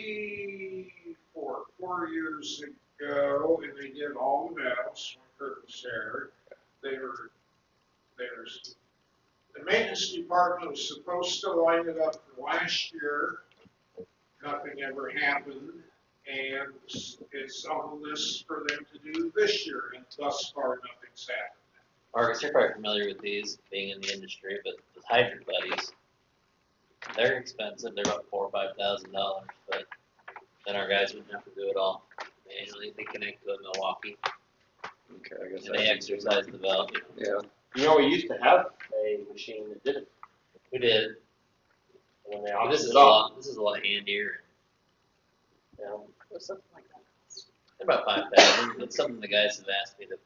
three, four, four years ago, and they did all the valves, when Kirk was there. They were, there's, the maintenance department was supposed to line it up for last year. Nothing ever happened, and it's on the list for them to do this year, and thus far, nothing's happened. Marcus, you're probably familiar with these, being in the industry, but the hydrant buddies, they're expensive, they're about four or five thousand dollars, but then our guys would have to do it all manually, they connect to a Milwaukee, Okay, I and guess. they exercise the valve. Yeah. You know, we used to have a machine that did it. We did, When they Well, Oh, auctioned this is it a off, lot, this is a lot handier, you know, or something like that. they're about five thousand, it's something the guys have asked me to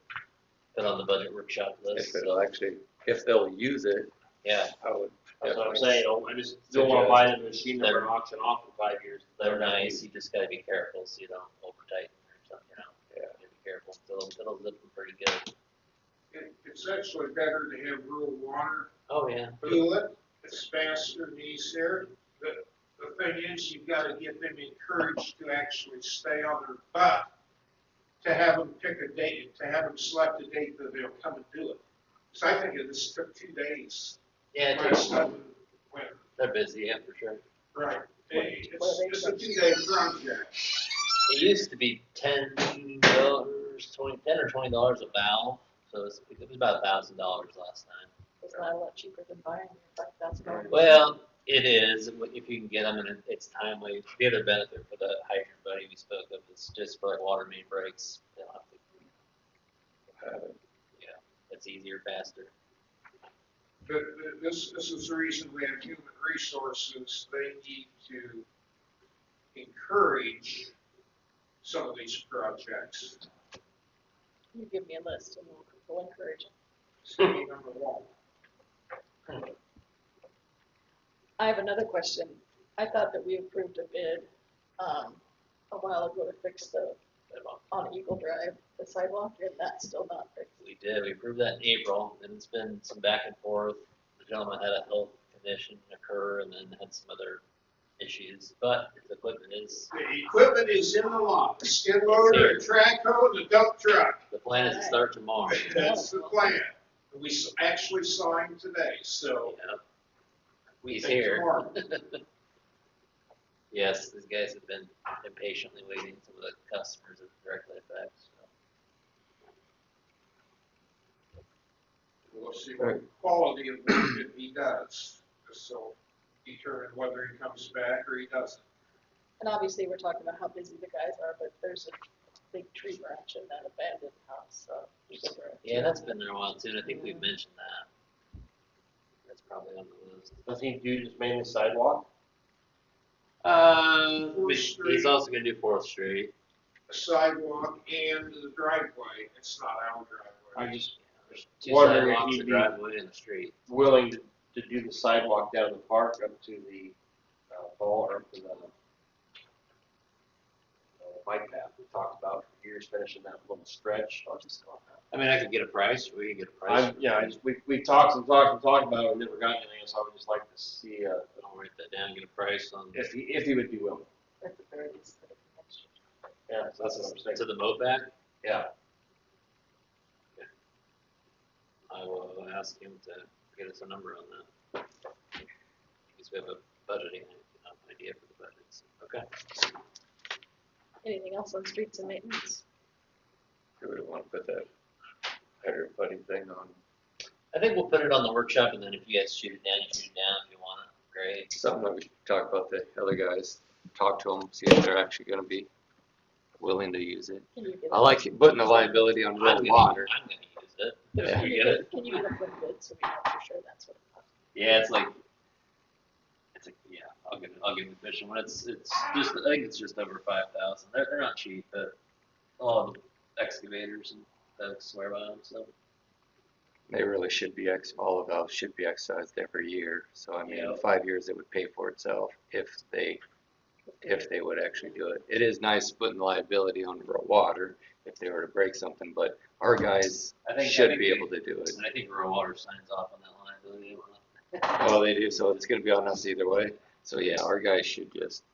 put on the budget workshop list, If so, it'll actually, if they'll use it, yeah, I would. that's what I'm definitely- saying, you know, I just don't wanna buy the machine that we're They're- auctioning off in five years. they're nice, you just gotta be careful, so you don't over tighten or something, you know? You Yeah. gotta Be careful, it'll, it'll zip them pretty good, It- It's actually better to have rural water oh, yeah. do it, it's faster and easier. The, the thing is, you've gotta get them encouraged to actually stay on their butt, to have them pick a date, to have them select a date that they'll come and do it. Cause I think it just took two days. Yeah, it My takes, son went, they're busy, yeah, for sure. right, hey, it's, Well, they- it's a two-day project. It used to be ten dollars, twenty, ten or twenty dollars a valve, so it's, it was about a thousand dollars last time. It's not a lot cheaper than buying it, like that's going. Well, it is, if you can get them, and it- it's timely. The other benefit for the hydrant buddy we spoke of is just for like water main breaks, they don't have to, have it. it's easier, faster. But th- this, this is the reason we have human resources, they need to encourage some of these projects, You give me a list and we'll, we'll encourage it. sticking on the wall. I have another question. I thought that we approved a bid, um, a while ago to fix the, But, well, on Eagle Drive, the sidewalk, and that's still not fixed. We did, we approved that in April, and it's been some back and forth. The gentleman had a health condition occur and then had some other issues, but his equipment is, The equipment is in the lot, the skid loader, a track hoe, and a dump truck. the plan is to start tomorrow. That's the plan. We s- actually signed today, so. Yeah. He's Thank you, here. Mark. Yes, these guys have been impatiently waiting for the customers of directly affected. so. We'll see what quality of work that he does, so determine whether he comes back or he doesn't. And obviously, we're talking about how busy the guys are, but there's a big tree branch in that abandoned house, so. Yeah, that's been there a while too, and I think we've mentioned that. That's probably on the list. Does he do just mainly sidewalk? Uh, Fourth Street. he's also gonna do Fourth Street. A sidewalk and the driveway, it's not our I driveway. just There's Two Wondering if sidewalks, a he'd be- driveway and a street. willing to, to do the sidewalk down the park up to the, uh, ball or up to the uh, bike path we talked about for years, finishing that little stretch. I was just on that. I mean, I could get a price, we could get a price. I'm, yeah, I just, we, we talked and talked and talked about it, and never got anything, so I would just like to see, uh, I'll write that down, get a price on, if he, if he would be willing. At the very least, that it's next year. Yeah, so that's what I'm to saying. the moat back. Yeah. I will ask him to get us a number on that. Because we have a budgeting uh, idea for the budgets. Okay. Anything else on streets and maintenance? Do we want to put that hydrant buddy thing on I think we'll put it on the workshop and then if you guys shoot it down, you shoot it down if you want it. Great. something that we should talk about the other guys, talk to them, see if they're actually gonna be willing to use it. Can you get? I like putting the liability on I'm Red gonna, Water. I'm gonna use it. Yeah. If we get it. Can you get a good bid so we know for sure that's what it costs? Yeah, it's like, it's like, yeah, I'll give it, I'll give it the fishing one. It's, it's just, I think it's just over five thousand. They're, they're not cheap, but all the excavators and folks swear by them, so. They really should be ex, all of those should be excised every year, so I mean, Yeah. in five years, it would pay for itself if they, if they would actually do it. It is nice putting the liability on Red Water if they were to break something, but our guys I think- I should think be they- able to do it. And I think rural water signs off on that liability. Oh, Well, they do, so it's gonna be on us either way. So yeah, our guys should just